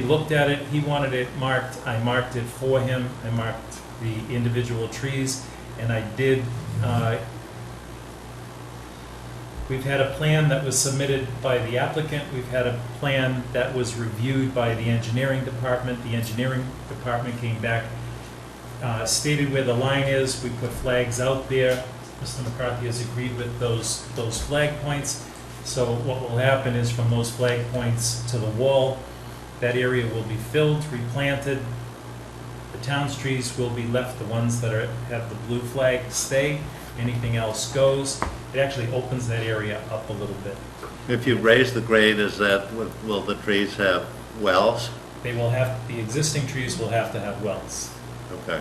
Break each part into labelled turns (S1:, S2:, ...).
S1: looked at it, he wanted it marked, I marked it for him, I marked the individual trees, and I did, uh, we've had a plan that was submitted by the applicant, we've had a plan that was reviewed by the engineering department, the engineering department came back, uh, stated where the line is, we put flags out there, Mr. McCarthy has agreed with those, those flag points. So what will happen is from those flag points to the wall, that area will be filled, replanted. The town's trees will be left, the ones that are, have the blue flag stay, anything else goes. It actually opens that area up a little bit.
S2: If you raise the grade, is that, will the trees have wells?
S1: They will have, the existing trees will have to have wells.
S2: Okay.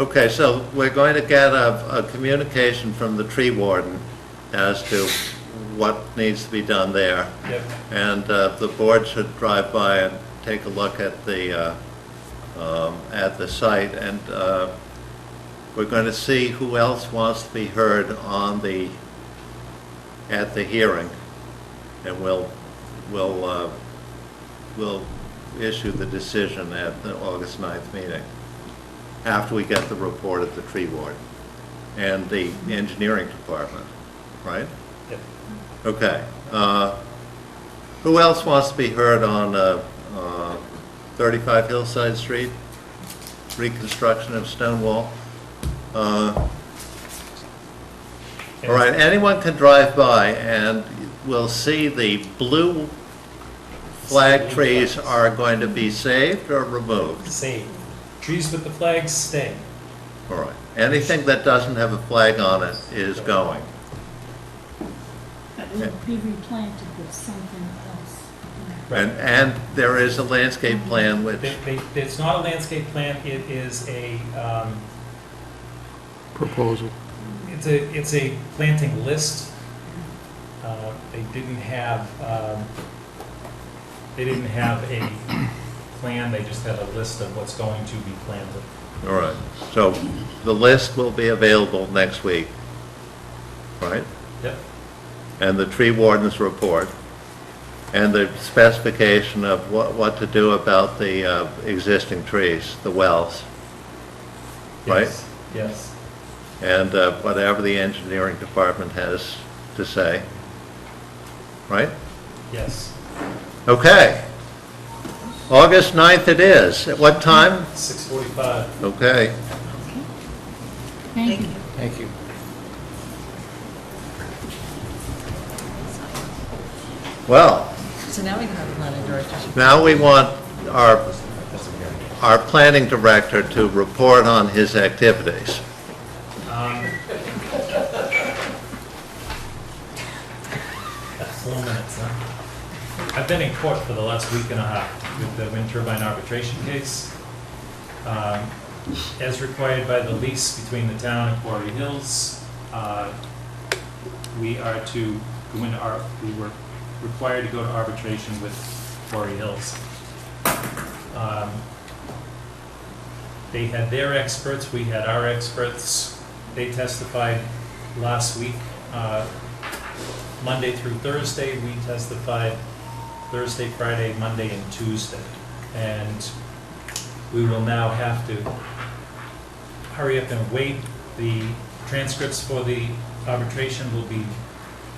S2: Okay, so we're going to get a, a communication from the tree warden as to what needs to be done there.
S1: Yep.
S2: And uh, the board should drive by and take a look at the, uh, um, at the site. And uh, we're going to see who else wants to be heard on the, at the hearing. And we'll, we'll, uh, we'll issue the decision at the August 9th meeting, after we get the report of the tree ward and the engineering department, right?
S1: Yep.
S2: Okay. uh, Who else wants to be heard on uh, uh, 35 Hillside Street? Reconstruction of stone wall? Uh, All right, anyone can drive by and will see the blue flag trees are going to be saved or removed.
S1: Save. Trees with the flags stay.
S2: All right, anything that doesn't have a flag on it is going.
S3: It will be replanted with something else.
S2: And, and there is a landscape plan which,
S1: They- they- It's not a landscape plan, it is a, um,
S4: proposal.
S1: It's a, it's a planting list. Uh, They didn't have, um, they didn't have a plan, they just had a list of what's going to be planted.
S2: all right, so the list will be available next week, right?
S1: Yep,
S2: And the tree warden's report, and the specification of what, what to do about the uh, existing trees, the wells, Right.
S1: yes, yes.
S2: and uh, whatever the engineering department has to say, right?
S1: Yes.
S2: Okay. August 9th it is. At what time?
S1: 645.
S2: Okay.
S3: Okay. Thank you.
S4: Thank you.
S2: Well,
S5: So now we can have a planning director.
S2: now we want our, our planning director to report on his activities.
S1: Um, That's four minutes, huh? I've been in court for the last week and a half with the wind turbine arbitration case. Um, As required by the lease between the town and Quarry Hills, uh, we are to go into our, we were required to go to arbitration with Quarry Hills. Um, They had their experts, we had our experts. They testified last week, uh, Monday through Thursday. We testified Thursday, Friday, Monday, and Tuesday. And we will now have to hurry up and wait. The transcripts for the arbitration will be,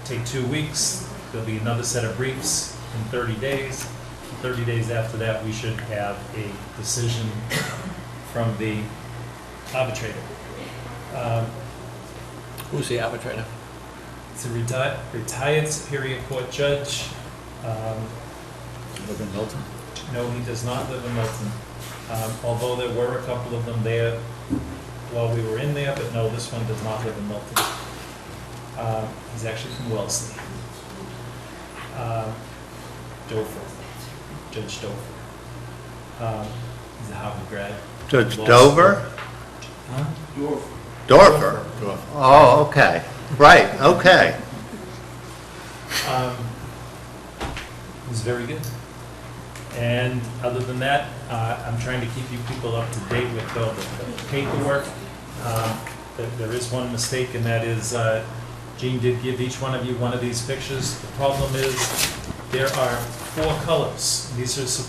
S1: take two weeks. There'll be another set of briefs in 30 days. 30 days after that, we should have a decision from the arbitrator. Um,
S4: Who's the arbitrator?
S1: It's a reti- retired Superior Court judge. Um,
S4: Logan Milton.
S1: No, he does not live in Milton. Um, Although there were a couple of them there while we were in there, but no, this one does not live in Milton. Um, He's actually from Wellesley. Um, Dover, Judge Dover. Um, He's a Harvard grad.
S2: Judge Dover?
S1: Huh?
S2: Dorfer? Oh, okay. Right, okay.
S1: Um, It was very good. And other than that, uh, I'm trying to keep you people up to date with all the the paperwork. Um, there- There is one mistake, and that is uh, Jean did give each one of you one of these pictures. The problem is, there are four colors. These are supposed